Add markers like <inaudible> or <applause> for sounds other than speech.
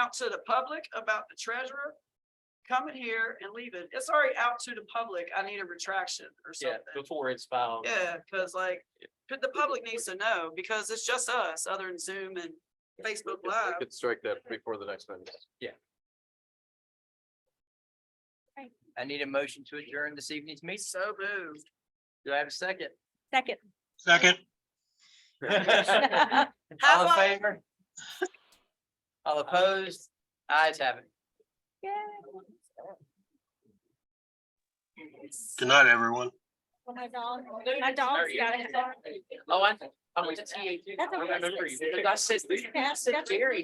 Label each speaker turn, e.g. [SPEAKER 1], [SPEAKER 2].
[SPEAKER 1] out to the public about the treasurer, come in here and leave it. It's already out to the public. I need a retraction or
[SPEAKER 2] Yeah,
[SPEAKER 1] something.
[SPEAKER 2] before it's filed.
[SPEAKER 1] Yeah, because like, but the public needs to know because it's just us, other than Zoom and Facebook Live.
[SPEAKER 3] Could strike that before the next meeting.
[SPEAKER 2] I need a motion to adjourn this evening's meeting.
[SPEAKER 1] So moved.
[SPEAKER 2] Do I have a <laughs> second?
[SPEAKER 4] <laughs> Second.
[SPEAKER 5] Second,
[SPEAKER 2] All
[SPEAKER 1] Have
[SPEAKER 2] in
[SPEAKER 1] fun.
[SPEAKER 2] favor? All opposed? Eyes have it.
[SPEAKER 5] good night, everyone.
[SPEAKER 4] My dog, my dog's got it.
[SPEAKER 2] Oh, I, I was T A.
[SPEAKER 4] That's okay.
[SPEAKER 2] I remember you, because I said, I said
[SPEAKER 4] That's- that's-
[SPEAKER 2] Jerry.